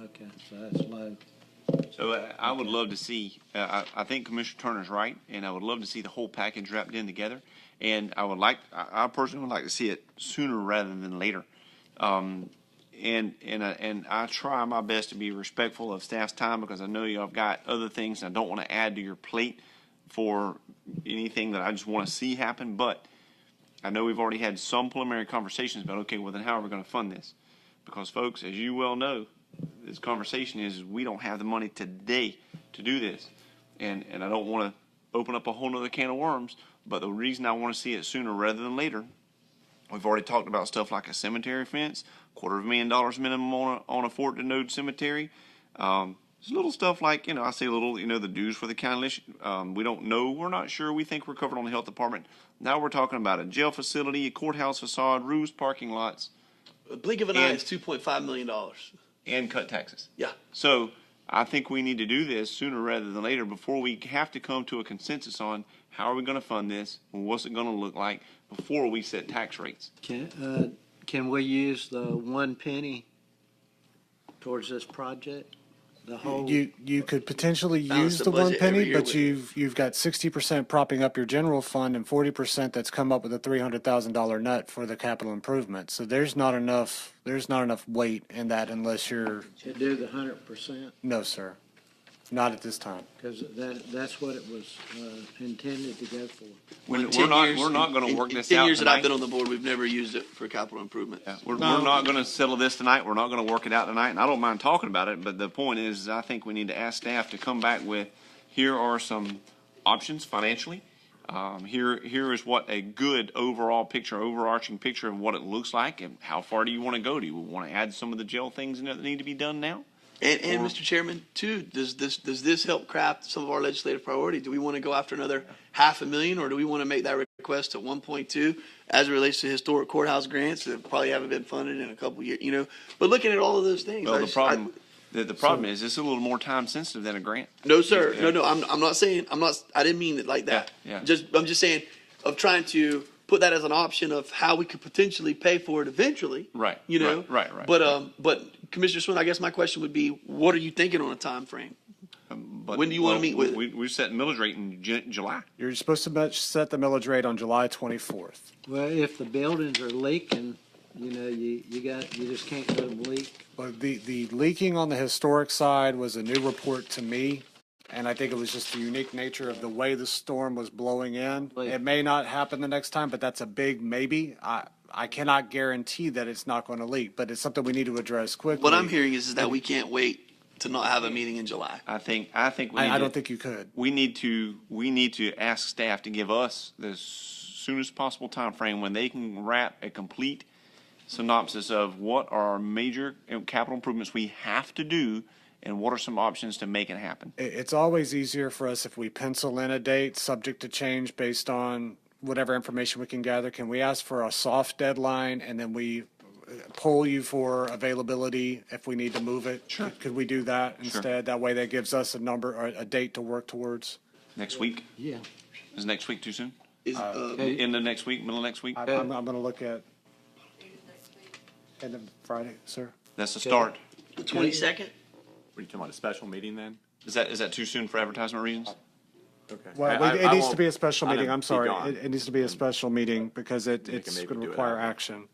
Okay, so that's low. So uh, I would love to see, uh, I I think Commissioner Turner's right, and I would love to see the whole package wrapped in together. And I would like, I I personally would like to see it sooner rather than later. Um, And, and, I- and I try my best to be respectful of staff's time because I know y'all have got other things and I don't want to add to your plate for anything that I just want to see happen. But I know we've already had some preliminary conversations about, okay, well then how are we going to fund this? Because folks, as you well know, this conversation is we don't have the money today to do this. And, and I don't want to open up a whole nother can of worms, but the reason I want to see it sooner rather than later, we've already talked about stuff like a cemetery fence, quarter of a million dollars minimum on a, on a Fort Denode cemetery. Um, just little stuff like, you know, I say little, you know, the dues for the county. lis- Um, we don't know. We're not sure. We think we're covered on the health department. Now we're talking about a jail facility, a courthouse facade, roofs, parking lots, A blink of an eye And- is two point five million dollars. and cut taxes. Yeah. So I think we need to do this sooner rather than later before we have to come to a consensus on how are we going to fund this and what's it going to look like before we set tax rates. Can, uh, can we use the one penny towards this project? The whole, You, you could potentially Balance use the the one budget every penny, year but with- you've, you've got sixty percent propping up your general fund and forty percent that's come up with a three hundred thousand dollar nut for the capital improvement. So there's not enough, there's not enough weight in that unless you're, to do the hundred percent, no, sir. Not at this time. because that, that's what it was, uh, intended to go for. We're In 10 not, years- we're not going in- to work this In out ten years that tonight. I've been on the board, we've never used it for capital improvements. Yeah, We're, we're not going to settle this tonight. We're not going to work it out tonight. And I don't mind talking about it, but the point is, I think we need to ask staff to come back with, here are some options financially. Um, here, here is what a good overall picture, overarching picture of what it looks like, and how far do you want to go? Do you want to add some of the jail things in there that need to be done now? And, and Or- Mr. Chairman, too, does this, does this help craft some of our legislative priorities? Do we want to go after another half a million or do we want to make that request to one point two as it relates to historic courthouse grants that probably haven't been funded in a couple years, you know? But looking at all of those things. I Well, the just- I- problem, the, the problem is, it's a little more time sensitive than a grant. No, sir. No, no. I'm, I'm not saying I'm not. I didn't mean it like that. Yeah, yeah. Just I'm just saying of trying to put that as an option of how we could potentially pay for it eventually. Right, You know. right, right, right, But right. um, but Commissioner Swin, I guess my question would be, what are you thinking on a time frame? But- When do you wanna well, meet with it? We, we set millage rate in Ju- July. You're supposed to bet- set the millage rate on July twenty-fourth. Well, if the buildings are leaking, you know, you, you got, you just can't let them leak. But the, the leaking on the historic side was a new report to me. And I think it was just the unique nature of the way the storm was blowing in. Like- It may not happen the next time, but that's a big maybe. I, I cannot guarantee that it's not going to leak, but it's something we need to address quickly. What I'm hearing is, is that we can't wait to not have a meeting in July. I think, I think we need I, I to- don't think you could. we need to we need to ask staff to give us the soonest possible time frame when they can wrap a complete synopsis of what are our major uh, capital improvements we have to do and what are some options to make it happen. It, it's always easier for us if we pencil in a date, subject to change based on whatever information we can gather. Can we ask for a soft deadline and then we uh, poll you for availability if we need to move it? Sure. Could we do that instead? That way that gives us a number or a date to work towards. Next week Yeah. is next week too soon? Is, uh, Okay. End of next week, middle of next week. I- I'm, I'm going to look at, and then Friday, sir? That's the start. the 22nd? What are you talking about, a special meeting then? Is that is that too soon for advertisement reasons? Okay. Well, I- I- it- I it needs to won't- be a special I'm meeting. gonna I'm be sorry. gone. It, it needs to be a special meeting because it, We can it's maybe going to do it require after. action.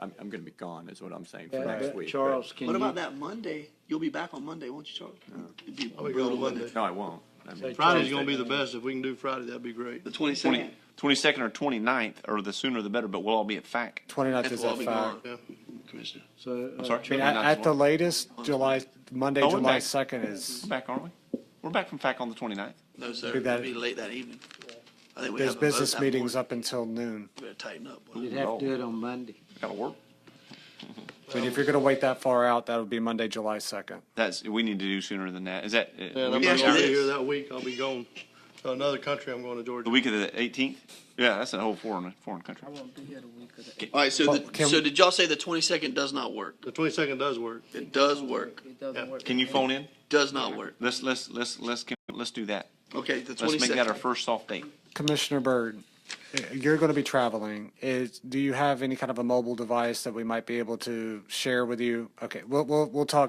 I'm, I'm gonna be gone, is what I'm saying for next But week. but- Charles, can What about you, that Monday? You'll be back on Monday, won't you, Charlie? It'd be I'll be brutal gone Monday. Monday. No, I won't. I mean, Friday's gonna be the best. If we can do Friday, that'd be great. The 22nd. 20, 22nd or 29th, or the sooner the better, but we'll all be at FAC. 29th We'll is all at be five. gone, Commissioner. so, I'm uh, sorry. I mean, at, 29th is at the what? latest, July, Monday, Oh, we're July back. second is, We're back, aren't we? We're back from FAC on the 29th. No, sir. Do that. It'll be late that evening. I think we there's have a vote business that meetings morning. up until noon. We better tighten up. boy. you'd have to do it on Monday. Gotta work. I mean, if you're gonna wait that far out, that would be Monday, July second. That's, we need to do sooner than that. Is that? uh, And I'm we- Yeah, not she gonna be did. here that week. I'll be gone to another country. I'm going to The Georgia. week of the 18th? Yeah, that's a whole foreign, foreign country. All right, so, Well, the, can so we- did y'all say the twenty-second does not work? The 22nd does work. It does work, Can you phone in? does not work. Let's, let's, let's, let's, get- let's do that. Okay, the Let's make that our twenty-second. first soft date. Commissioner Byrd, uh, you're gonna be traveling. Is, do you have any kind of a mobile device that we might be able to share with you? Okay, we'll, we'll, we'll talk